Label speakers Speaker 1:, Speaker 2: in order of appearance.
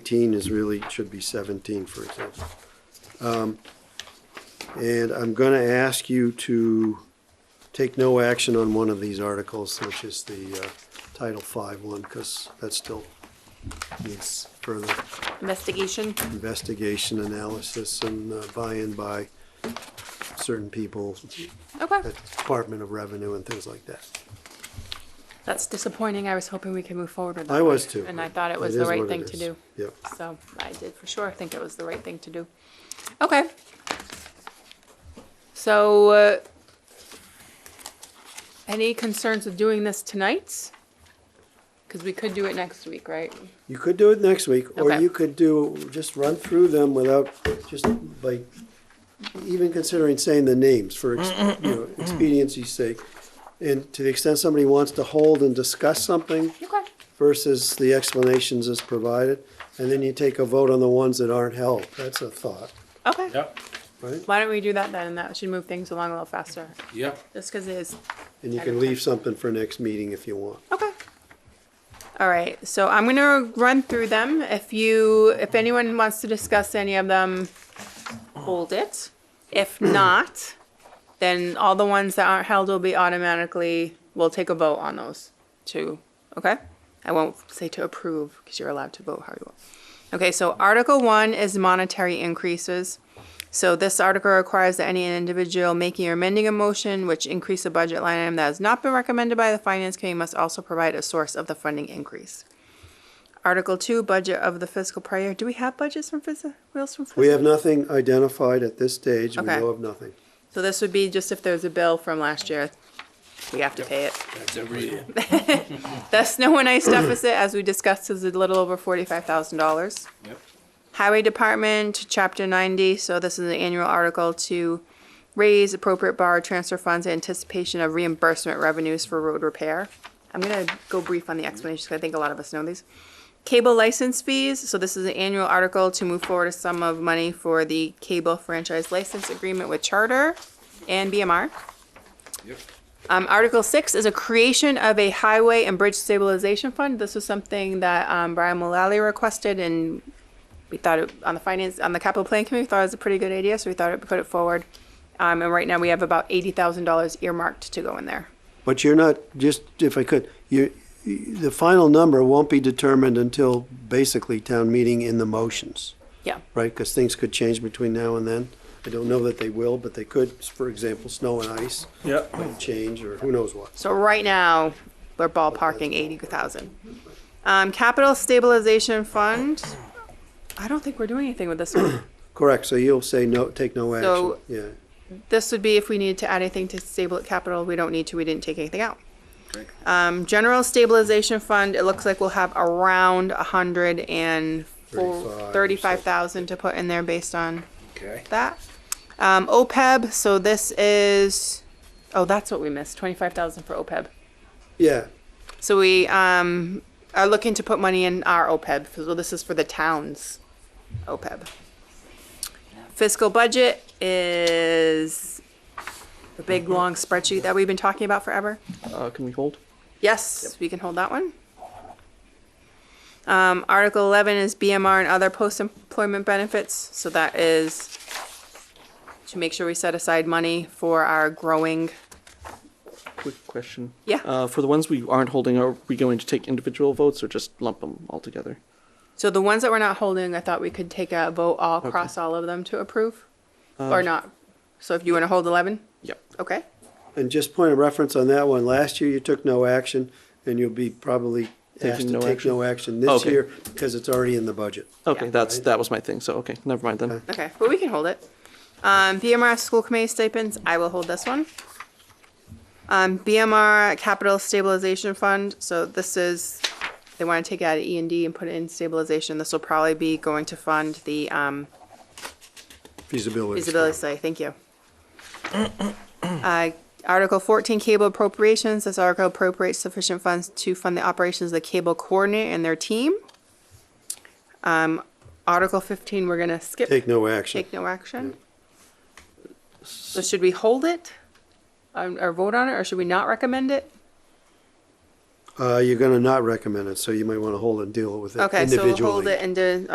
Speaker 1: eighteen is really, should be seventeen, for example. Um, And I'm gonna ask you to take no action on one of these articles, which is the uh, Title Five one, because that still needs further
Speaker 2: Investigation.
Speaker 1: investigation, analysis, and uh, buy-in by certain people
Speaker 2: Okay.
Speaker 1: at the Department of Revenue and things like that.
Speaker 2: That's disappointing. I was hoping we could move forward with that.
Speaker 1: I was
Speaker 2: one,
Speaker 1: too.
Speaker 2: And I thought it was
Speaker 1: It
Speaker 2: the
Speaker 1: is
Speaker 2: right
Speaker 1: what it
Speaker 2: thing to
Speaker 1: is.
Speaker 2: do.
Speaker 1: Yep.
Speaker 2: So I did for sure think it was the right thing to do. Okay. So, uh, any concerns with doing this tonight? Because we could do it next week, right?
Speaker 1: You could do it next week, or
Speaker 2: Okay.
Speaker 1: you could do, just run through them without, just like, even considering saying the names for, ex- you know, expediency's sake. And to the extent somebody wants to hold and discuss something
Speaker 2: Okay.
Speaker 1: versus the explanations as provided, and then you take a vote on the ones that aren't held. That's a thought,
Speaker 2: Okay.
Speaker 3: Yep,
Speaker 1: right?
Speaker 2: Why don't we do that then? And that should move things along a little faster.
Speaker 3: yep.
Speaker 2: Just because it is
Speaker 1: And you can leave something for next meeting if you want.
Speaker 2: Okay. All right, so I'm gonna run through them. If you, if anyone wants to discuss any of them, hold it. If not, then all the ones that aren't held will be automatically, we'll take a vote on those too, okay? I won't say to approve, because you're allowed to vote how you want. Okay, so Article One is monetary increases. So this article requires that any individual making or amending a motion which increase a budget line item that has not been recommended by the finance committee must also provide a source of the funding increase. Article two, budget of the fiscal prior. year. Do we have budgets from fiscal, wheels from fiscal?
Speaker 1: We have nothing identified at this stage. We
Speaker 2: Okay.
Speaker 1: know of nothing.
Speaker 2: So this would be just if there's a bill from last year, we have to pay it.
Speaker 3: That's every year.
Speaker 2: The snow and ice deficit, as we discussed, is a little over forty-five thousand dollars.
Speaker 3: Yep.
Speaker 2: Highway Department, Chapter 90, so this is an annual article to raise appropriate borrow transfer funds in anticipation of reimbursement revenues for road repair. I'm gonna go brief on the explanations, 'cause I think a lot of us know these. Cable license fees, so this is an annual article to move forward a sum of money for the cable franchise license agreement with Charter and BMR.
Speaker 3: Yep.
Speaker 2: Um, Article six is a creation of a highway and bridge stabilization fund. This was something that, um, Brian Mulally requested and we thought it, on the finance, on the capital plan committee, we thought it was a pretty good idea, so we thought it put it forward. Um, and right now we have about eighty thousand dollars earmarked to go in there.
Speaker 1: But you're not, just if I could, you, the final number won't be determined until basically town meeting in the motions,
Speaker 2: Yeah,
Speaker 1: right? Because things could change between now and then. I don't know that they will, but they could, for example, snow and ice
Speaker 3: Yep.
Speaker 1: might change or who knows what.
Speaker 2: so right now, we're ballparking eighty thousand. Um, capital stabilization fund, I don't think we're doing anything with this one.
Speaker 1: Correct, so you'll say no, take no action,
Speaker 2: So-
Speaker 1: yeah.
Speaker 2: This would be if we needed to add anything to stable capital. We don't need to. We didn't take anything out. Um, general stabilization fund, it looks like we'll have around a hundred and
Speaker 1: Thirty-five or
Speaker 2: thirty-five thousand to put in there based on
Speaker 3: Okay.
Speaker 2: that. Um, OPEB, so this is, oh, that's what we missed, twenty-five thousand for OPEB.
Speaker 1: Yeah,
Speaker 2: So we, um, are looking to put money in our OPEB, so this is for the town's OPEB. Fiscal budget is the big, long spreadsheet that we've been talking about forever.
Speaker 4: Uh, can we hold?
Speaker 2: Yes, we can hold that one. Um, Article eleven is BMR and other post-employment benefits, so that is to make sure we set aside money for our growing,
Speaker 4: Quick question.
Speaker 2: Yeah.
Speaker 4: Uh, for the ones we aren't holding, are we going to take individual votes or just lump them all together?
Speaker 2: so the ones that we're not holding, I thought we could take a vote all, cross all of them to approve, or not. So if you wanna hold eleven,
Speaker 4: Yep.
Speaker 2: okay?
Speaker 1: and just point of reference on that one, last year you took no action and you'll be probably asked
Speaker 4: Taking
Speaker 1: to
Speaker 4: no
Speaker 1: take
Speaker 4: action?
Speaker 1: no action this
Speaker 4: Okay.
Speaker 1: year because it's already in the budget.
Speaker 4: Okay,
Speaker 2: Yeah.
Speaker 4: that's that was my thing. So okay, never mind then.
Speaker 2: Okay, but we can hold it. Um, BMR school committee stipends, I will hold this one. Um, BMR capital stabilization fund, so this is, they wanna take it out of E and D and put it in stabilization, this will probably be going to fund the, um,
Speaker 1: Feasibility.
Speaker 2: feasibility study, thank you. Uh, Article fourteen, cable appropriations, this article appropriates sufficient funds to fund the operations of the cable coordinator and their team. Um, Article fifteen, we're gonna skip.
Speaker 1: Take no action.
Speaker 2: Take no action? So should we hold it? um, Or vote on it, or should we not recommend it?
Speaker 1: Uh, you're gonna not recommend it, so you might wanna hold and deal with it
Speaker 2: Okay, so
Speaker 1: individually.
Speaker 2: we'll hold it and do,